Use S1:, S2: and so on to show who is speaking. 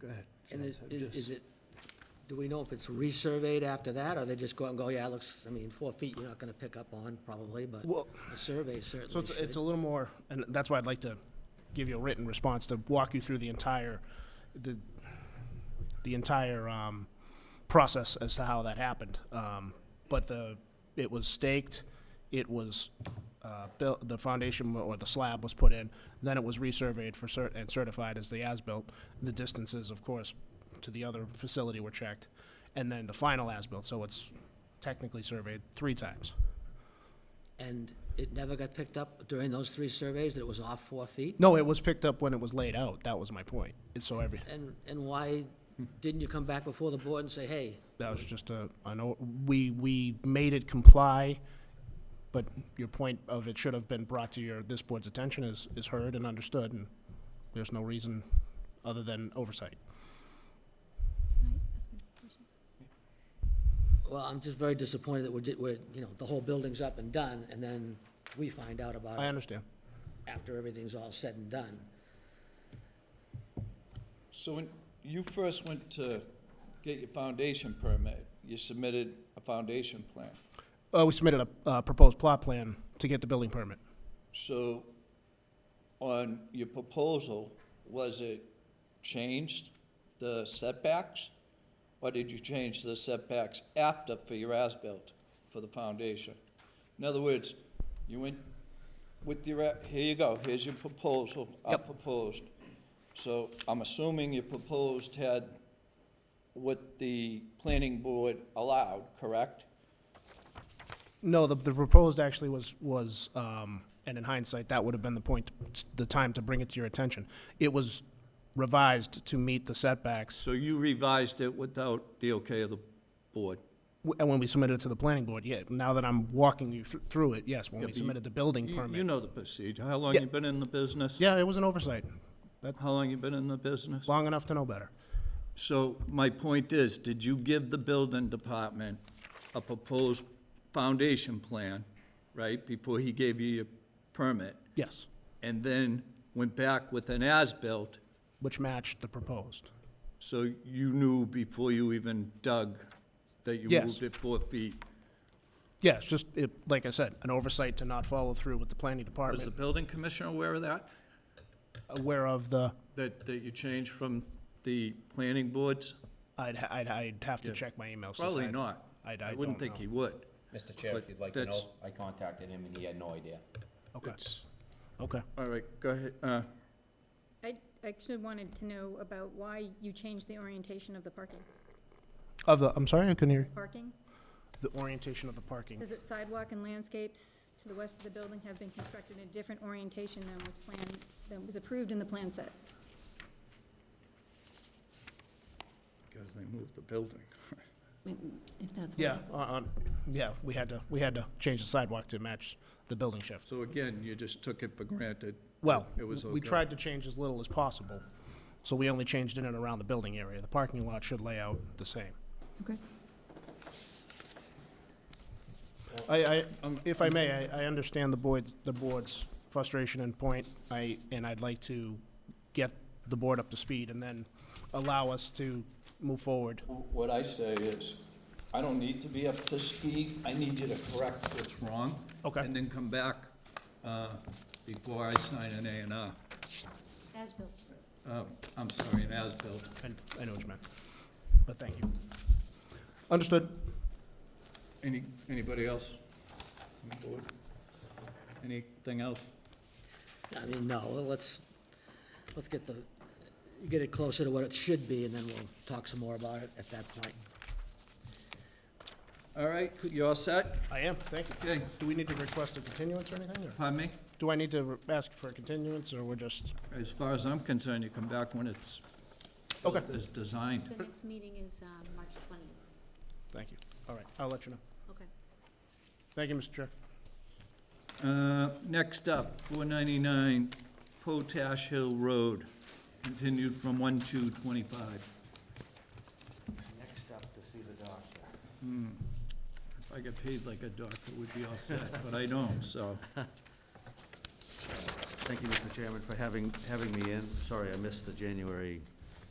S1: go ahead.
S2: And is,
S1: So
S2: is-
S1: just-
S2: is it, do we know if it's resurveyed after that, or they just go out and go, yeah, it looks, I mean, four feet, you're not gonna pick up on probably, but
S3: Well,
S2: a survey
S3: So
S2: certainly
S3: it's, it's
S2: should.
S3: a little more, and that's why I'd like to give you a written response to walk you through the entire, the, the entire, um, process as to how that happened. Um, but the, it was staked, it was, uh, built, the foundation or the slab was put in, then it was resurveyed for cert, and certified as the as-built. The distances, of course, to the other facility were checked, and then the final as-built, so it's technically surveyed three times.
S2: And it never got picked up during those three surveys, that it was off four feet?
S3: No, it was picked up when it was laid out. That was my point. And so every,
S2: And, and why didn't you come back before the board and say, hey,
S3: that was just a, I know, we, we made it comply, but your point of it should have been brought to your, this board's attention is, is heard and understood, and there's no reason other than oversight.
S2: well, I'm just very disappointed that we're, di- we're, you know, the whole building's up and done, and then we find out about
S3: I
S2: it
S3: understand.
S2: after everything's all said and done.
S4: So when you first went to get your foundation permit, you submitted a foundation plan.
S3: Uh, we submitted a, uh proposed plot plan to get the building permit.
S4: So on your proposal, was it changed the setbacks? Or did you change the setbacks after for your as-built for the foundation? In other words, you went with your, a- here you go, here's your proposal, I
S3: Yep.
S4: proposed. So I'm assuming your proposed had what the planning board allowed, correct?
S3: No, the, the proposed actually was, was, um, and in hindsight, that would have been the point, the time to bring it to your attention. It was revised to meet the setbacks
S4: So you revised it without the okay of the board?
S3: W- And when we submitted it to the planning board, yeah, now that I'm walking you thr- through it, yes, when
S4: Yeah,
S3: we
S4: but you-
S3: submitted the building
S4: You you
S3: permit.
S4: know the procedure. How long
S3: Yeah.
S4: you been in the business?
S3: Yeah, it was an oversight,
S4: How long you been in the business?
S3: long enough to know better.
S4: So my point is, did you give the building department a proposed foundation plan, right, before he gave you your permit?
S3: Yes,
S4: And then went back with an as-built,
S3: which matched the proposed.
S4: so you knew before you even dug that you
S3: Yes.
S4: moved it four feet?
S3: Yeah, it's just, it, like I said, an oversight to not follow through with the planning
S4: Was the
S3: department,
S4: building commissioner aware of that?
S3: aware of the,
S4: That, that you changed from the planning boards?
S3: I'd, ha- I'd, I'd have to
S4: Yeah.
S3: check my emails. since
S4: Probably
S3: I-
S4: not.
S3: I- I don't
S4: wouldn't think
S3: know.
S4: he would.
S5: Mr. Chair,
S4: But
S5: if you'd like to
S4: that's-
S5: know, I contacted him and he had no idea.
S3: Okay, okay.
S4: All right, go ahead, uh,
S6: I actually wanted to know about why you changed the orientation of the parking.
S3: Of the, I'm sorry, I couldn't hear.
S6: Parking,
S3: The orientation of the parking.
S6: says that sidewalk and landscapes to the west of the building have been constructed in a different orientation than was planned, than was approved in the plan set.
S4: because they moved the building.
S7: If that's what-
S3: Yeah, uh, uh, yeah, we had to, we had to change the sidewalk to match the building shift.
S4: So again, you just took it for granted.
S3: Well,
S4: It was
S3: we
S4: okay.
S3: tried to change as little as possible, so we only changed in and around the building area. The parking lot should lay out the same.
S7: okay.
S3: I, I,
S4: Um,
S3: if I may, I, I understand the board's, the board's frustration and point. I, and I'd like to get the board up to speed and then allow us to move forward.
S4: What I say is, I don't need to be up to speed, I need you to correct what's wrong.
S3: Okay.
S4: And then come back uh, before I sign an A and R.
S6: As-built.
S4: Uh, I'm sorry, an as-built.
S3: I, I know what you meant, but thank you. Understood.
S4: Any, anybody else? on the board? Anything else?
S2: I mean, no, well, let's, let's get the, get it closer to what it should be, and then we'll talk some more about it at that point.
S4: All right, you all set?
S3: I am, thank you.
S4: Okay,
S3: Do we need to request a continuance or anything, or
S4: pardon me?
S3: do I need to re- ask for a continuance, or we're just,
S4: As far as I'm concerned, you come back when it's,
S3: okay,
S4: it's designed.
S8: The next meeting is um, March 20th.
S3: thank you. All right, I'll let you know.
S8: Okay.
S3: Thank you, Mr. Chair.
S4: Uh, Next up, 499 Potash Hill Road, continued from 1/2/25.
S5: Next up to see the doctor.
S4: If I get paid like a doctor, we'd be all set, but I don't, so.
S9: Thank you, Mr. Chairman, for having, having me in. Sorry, I missed the January